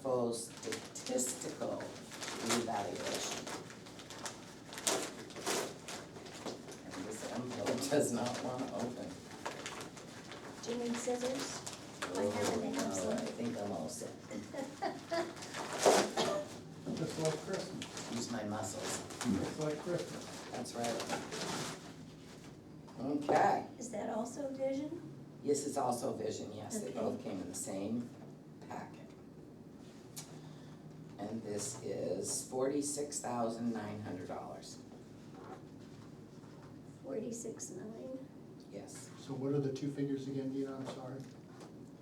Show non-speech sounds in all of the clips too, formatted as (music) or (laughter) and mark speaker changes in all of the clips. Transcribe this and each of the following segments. Speaker 1: proposed statistical revaluation. And this envelope (laughs) does not wanna open.
Speaker 2: Do you need scissors? I
Speaker 1: Oh,
Speaker 2: have an
Speaker 1: no,
Speaker 2: envelope.
Speaker 1: I think I'm all set.
Speaker 3: Just like Christmas,
Speaker 1: Use my muscles,
Speaker 3: just like Christmas.
Speaker 1: that's right. Okay,
Speaker 2: Is that also vision?
Speaker 1: this is also vision, yes, they
Speaker 2: Okay.
Speaker 1: both came in the same packet. And this is forty-six thousand nine hundred dollars,
Speaker 2: Forty-six nine,
Speaker 1: yes,
Speaker 3: So what are the two figures again, Dina, I'm sorry?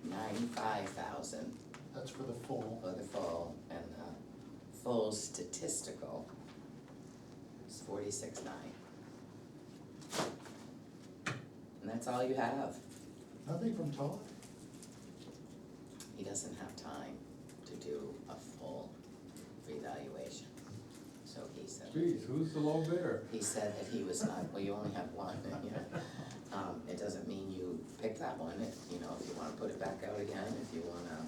Speaker 1: ninety-five thousand
Speaker 3: That's for the full.
Speaker 1: for uh, the full and the full statistical is forty-six nine. And that's all you have,
Speaker 3: Nothing from Todd?
Speaker 1: he doesn't have time to do a full revaluation. So he said,
Speaker 4: Geez, who's the low bidder?
Speaker 1: he said that he was not, well, you only have one, and, you know. Um, it doesn't mean you pick that one, it, you know, if you wanna put it back out again, if you wanna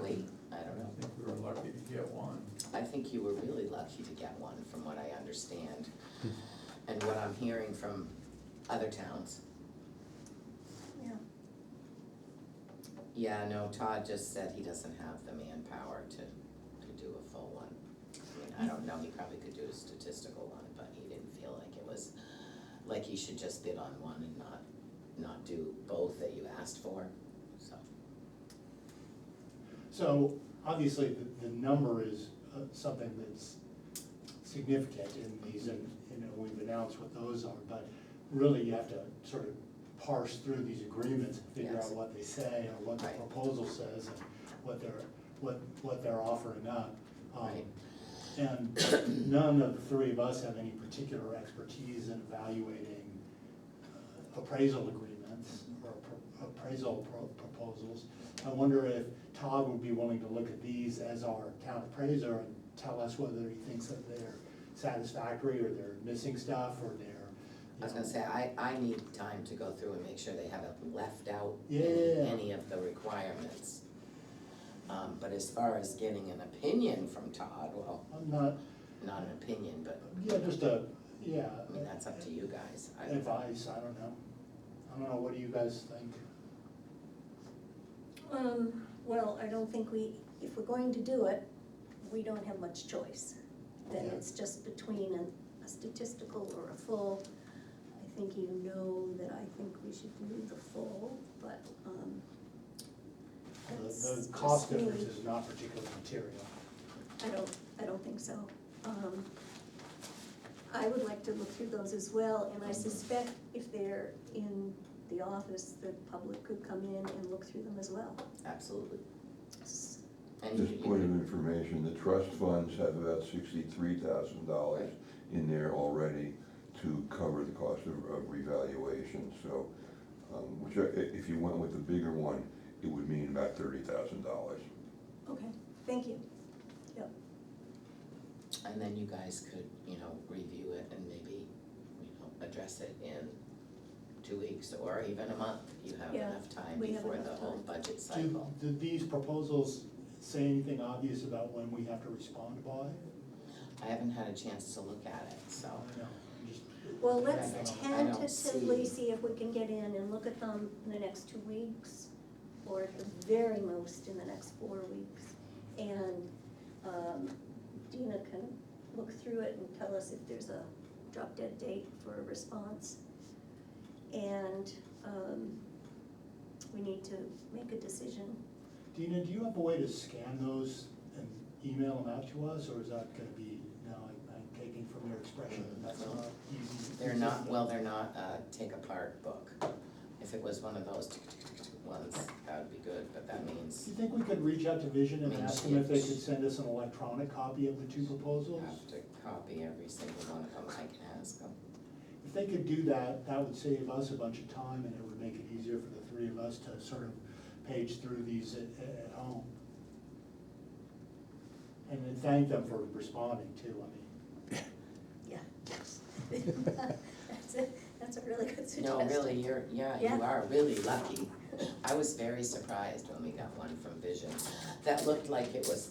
Speaker 1: wait, I
Speaker 4: I
Speaker 1: don't know.
Speaker 4: think we were lucky to get one.
Speaker 1: I think you were really lucky to get one, from what I understand, and what I'm hearing from other towns.
Speaker 2: yeah.
Speaker 1: Yeah, no, Todd just said he doesn't have the manpower to, to do a full one. I mean, I don't know, he probably could do a statistical one, but he didn't feel like it was, like he should just bid on one and not, not do both that you asked for, so.
Speaker 5: So obviously, the, the number is uh, something that's significant in these, and, you know, we've announced what those are, but really you have to sort of parse through these agreements, and figure
Speaker 1: Yes.
Speaker 5: out what they say, or what the
Speaker 1: Right.
Speaker 5: proposal says, and what they're, what, what they're offering up. Um,
Speaker 1: Right.
Speaker 5: And none of the three of us have any particular expertise in evaluating uh, appraisal agreements or pro- appraisal pro- proposals. I wonder if Todd would be willing to look at these as our town appraiser and tell us whether he thinks that they're satisfactory or they're missing stuff or they're. you
Speaker 1: I was gonna
Speaker 5: know,
Speaker 1: say, I, I need time to go through and make sure they haven't left out
Speaker 5: Yeah.
Speaker 1: any, any of the requirements. Um, but as far as getting an opinion from Todd, well,
Speaker 5: I'm not,
Speaker 1: not an opinion, but,
Speaker 5: yeah, just a, yeah.
Speaker 1: I mean, that's up to you guys. I don't-
Speaker 5: Advice, I don't know. I don't know, what do you guys think?
Speaker 2: Um, well, I don't think we, if we're going to do it, we don't have much choice. Then
Speaker 5: Yeah.
Speaker 2: it's just between a, a statistical or a full. I think you know that I think we should do the full, but, um.
Speaker 5: The-
Speaker 2: that's
Speaker 5: The
Speaker 2: just
Speaker 5: cost
Speaker 2: me.
Speaker 5: difference is not particularly material.
Speaker 2: I don't, I don't think so. Um, I would like to look through those as well, and I suspect if they're in the office, the public could come in and look through them as well.
Speaker 1: Absolutely.
Speaker 2: S-
Speaker 1: And you-
Speaker 6: Just point of information, the trust funds have about sixty-three thousand dollars in there already to cover the cost of, of revaluation, so, um, which, I- i- if you went with the bigger one, it would mean about thirty thousand dollars.
Speaker 2: Okay, thank you.
Speaker 1: And then you guys could, you know, review it and maybe, you know, address it in two weeks or even a month. You have
Speaker 2: Yeah,
Speaker 1: enough time
Speaker 2: we have
Speaker 1: before the
Speaker 2: enough
Speaker 1: whole
Speaker 2: time.
Speaker 1: budget cycle.
Speaker 5: Do, do these proposals say anything obvious about when we have to respond by?
Speaker 1: I haven't had a chance to look at it, so.
Speaker 5: No, I'm just-
Speaker 2: Well, let's
Speaker 1: I don't
Speaker 2: tentatively
Speaker 1: see-
Speaker 2: see if we can get in and look at them in the next two weeks, or at the very most in the next four weeks. And um, Dina can look through it and tell us if there's a drop dead date for a response. And um, we need to make a decision.
Speaker 5: Dina, do you have a way to scan those and email them out to us, or is that gonna be, no, I- I'm taking from your expression, that that's not easy?
Speaker 1: They're not, well, they're not a take apart book. If it was one of those tick, tick, tick, tick, tick ones, that would be good, but that
Speaker 5: Do
Speaker 1: means
Speaker 5: you think we could reach out to Vision and
Speaker 1: Mean
Speaker 5: ask them if they
Speaker 1: sheets.
Speaker 5: could send us an electronic copy of the two
Speaker 1: you
Speaker 5: proposals?
Speaker 1: have to copy every single one of them, I can ask them.
Speaker 5: If they could do that, that would save us a bunch of time and it would make it easier for the three of us to sort of page through these at, at at home. And then thank them for responding too, I mean.
Speaker 2: Yeah. (laughs) That's a, that's a really good suggestion.
Speaker 1: No, really, you're, yeah,
Speaker 2: Yeah.
Speaker 1: you are really
Speaker 2: (laughs)
Speaker 1: lucky. I was very surprised when we got one from Vision. That looked like it was